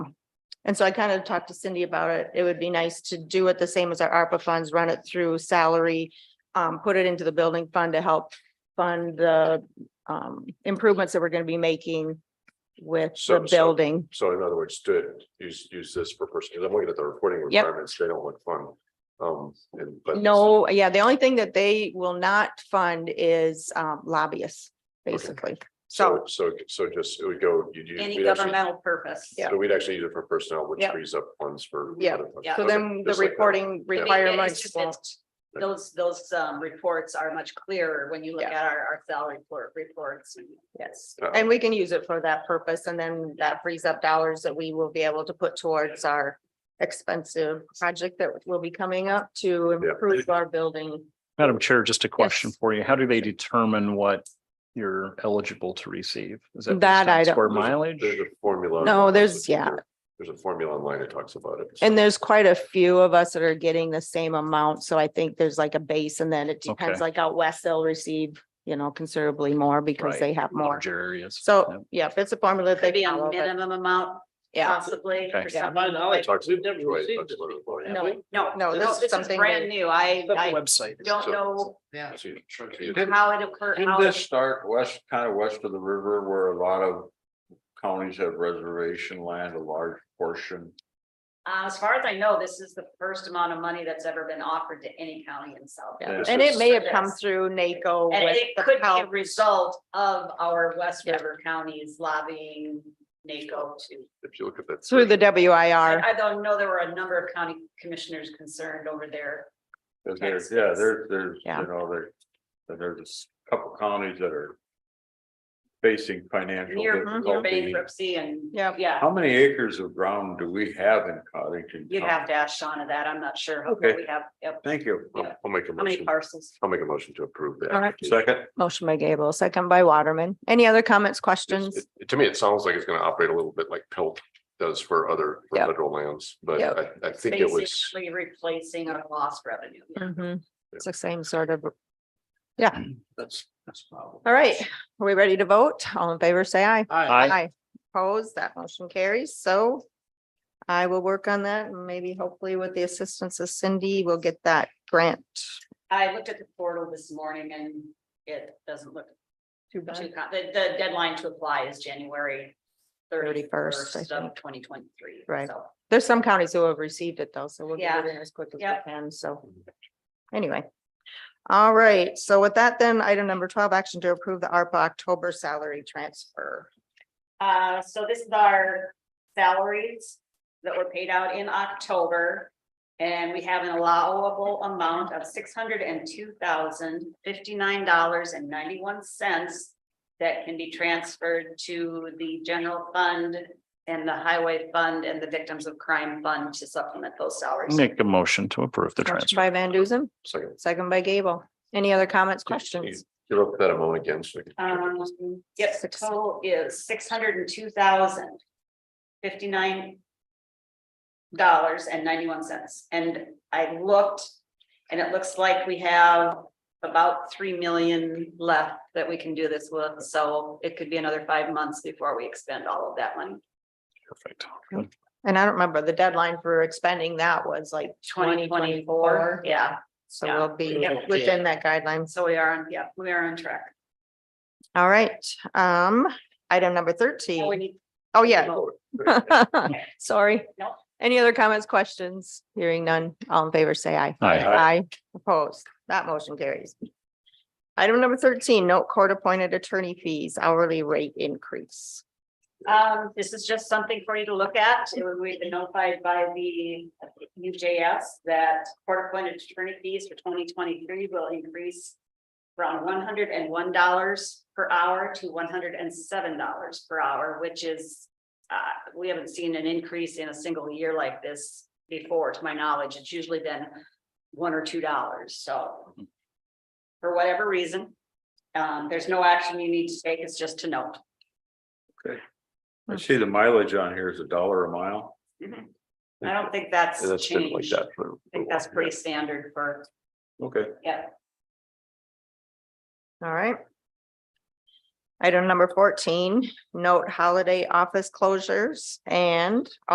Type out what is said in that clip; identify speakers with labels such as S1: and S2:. S1: And so I kind of talked to Cindy about it. It would be nice to do it the same as our ARPA funds, run it through salary. Um, put it into the building fund to help fund the um improvements that we're gonna be making with
S2: So-
S1: the
S2: so-
S1: building.
S2: So in other words, to use, use this for person, because I'm looking at the reporting
S1: Yep.
S2: requirements, they don't look fun. Um, and, but.
S1: No, yeah, the only thing that they will not fund is um lobbyists, basically.
S2: So, so, so just, it would go, you'd use.
S3: Any
S2: we'd actually-
S3: governmental purpose.
S1: Yeah.
S2: So we'd actually use it for personnel, which
S1: Yep.
S2: frees up funds for.
S1: Yep.
S2: other funds.
S3: Yeah.
S1: So
S2: Okay,
S1: then the
S2: just like that.
S1: reporting
S3: I mean, it's
S1: requirements
S3: just-
S1: won't.
S3: it's- Those, those um reports are much clearer when you look
S1: Yeah.
S3: at our, our salary report reports. Yes.
S2: Uh,
S1: And we can use it for that purpose and then that frees up dollars that we will be able to put towards our expensive project that will be coming up to improve our building.
S4: Madam Chair, just a question
S1: Yes.
S4: for you. How do they determine what you're eligible to receive? Is that? based
S1: That
S4: on
S1: I don't-
S4: Square
S2: There's a-
S4: mileage?
S2: There's a formula.
S1: No, there's- yeah.
S2: There's a formula online that talks about it.
S1: And there's quite a few of us that are getting the same amount, so I think there's like a base and then it depends,
S4: Okay.
S1: like out west, they'll receive, you know, considerably more because
S4: Right.
S1: they have more.
S4: Large areas. Yeah.
S1: So, yeah, if it's a formula that
S3: Could
S1: they
S3: be a
S1: follow, but-
S3: minimum amount
S1: yeah,
S3: possibly
S4: Okay.
S3: for
S1: Yeah.
S3: some.
S2: It talks- right, it talks about it.
S1: no,
S3: No.
S1: No, this is something
S3: Brand
S1: that-
S3: new. I, I
S4: Website.
S3: don't know
S5: Yeah.
S2: So you- so you-
S5: Didn't
S3: how it occurred.
S5: didn't this start west, kind of west of the river where a lot of counties have reservation land, a large portion?
S3: Uh, as far as I know, this is the first amount of money that's ever been offered to any county in South.
S1: yeah.
S3: Dakota.
S2: This
S1: and it
S2: is-
S1: may have come through NACO
S3: And
S1: with
S3: it
S1: the
S3: could be a
S1: help.
S3: result of our West
S1: Yeah.
S3: River counties lobbying NACO to.
S2: If you look at that.
S1: Through the
S3: I,
S1: WIR,
S3: I don't know, there were a number of county commissioners concerned over there.
S5: 'Cause there's-
S3: Yes.
S5: yeah, there's, there's,
S1: Yeah.
S5: you know, there, and there's a couple counties that are facing financial
S3: Near near
S5: difficulty.
S3: bankruptcy and.
S1: Mm-hmm. Yep.
S3: Yeah,
S5: How many acres of ground do we have in Cottington?
S3: you'd have to ask Shauna that. I'm not sure. how
S5: Okay.
S3: We have, yep,
S5: Thank you.
S3: Yeah.
S2: I'll I'll make a
S3: how many
S2: motion,
S3: parcels?
S2: I'll make a motion to approve that.
S1: All right.
S5: Second,
S1: motion by Gable, second by Waterman. Any other comments, questions?
S2: It's- it- To me, it sounds like it's gonna operate a little bit like PILT does for other for
S1: Yep.
S2: federal lands, but
S1: Yep.
S2: I, I think it was.
S3: Basically replacing our lost revenue.
S1: hmm
S2: Yeah.
S1: It's the same sort of,
S5: that's, that's. probably-
S1: all right, are we ready to vote? All in favor, say aye.
S4: Aye.
S1: Opposed, that motion carries, so I will work on that and maybe hopefully with the assistance of Cindy, we'll get that grant.
S3: I looked at the portal this morning and it doesn't look
S1: Too
S3: too, com- the, the deadline to apply is January
S1: 31st, I
S3: thirty-first of
S1: think.
S3: twenty twenty-three.
S1: Right. There's some counties who have received it though, so we'll get it in as quick as
S3: Yep.
S1: we can, so. Anyway. All right, so with that then, item number twelve, action to approve the ARPA October salary transfer.
S3: Uh, so this is our salaries that were paid out in October. And we have an allowable amount of six hundred and two thousand fifty-nine dollars and ninety-one cents. That can be transferred to the general fund and the highway fund and the victims of crime fund to supplement those salaries.
S4: Make a motion to approve the
S1: Motion
S4: transfer.
S1: by Van Dusen,
S2: Second,
S1: second by Gable. Any other comments,
S2: you-
S1: questions?
S2: you look at that a moment again, so. we can-
S3: Um, yes, the
S1: Six.
S3: total is six hundred and two thousand fifty-nine dollars and ninety-one cents, and I looked, and it looks like we have about three million left that we can do this with, so it could be another five months before we expend all of that money.
S4: Perfect.
S1: And I don't remember, the deadline for expending that was like twenty
S3: Twenty
S1: twenty-four.
S3: twenty-four, yeah,
S1: So
S3: Yeah.
S1: we'll be
S3: Yeah.
S1: within that guidelines.
S3: so we are, on. yeah, we are on track.
S1: All right, um, item number
S3: Now we
S1: thirteen.
S3: need-
S1: Oh, yeah.
S2: Vote.
S1: Sorry.
S3: Nope.
S1: Any other comments, questions? Hearing none. All in favor, say aye.
S4: Aye.
S1: Aye. Opposed. That motion carries. Item number thirteen, note court-appointed attorney fees hourly rate increase.
S3: Um, this is just something for you to look at. It was- We've been notified by the UJS that court appointed attorney fees for twenty twenty-three will increase from one hundred and one dollars per hour to one hundred and seven dollars per hour, which is uh, we haven't seen an increase in a single year like this before, to my knowledge. It's usually been one or two dollars, so for whatever reason, um, there's no action you need to take. It's just to note.
S5: I see the mileage on here is a dollar a mile.
S3: I don't think that's
S2: And that's been like
S3: changed. I
S2: that for.
S3: think that's pretty standard for,
S5: Okay.
S3: yeah.
S1: All right. Item number fourteen, note holiday office closures and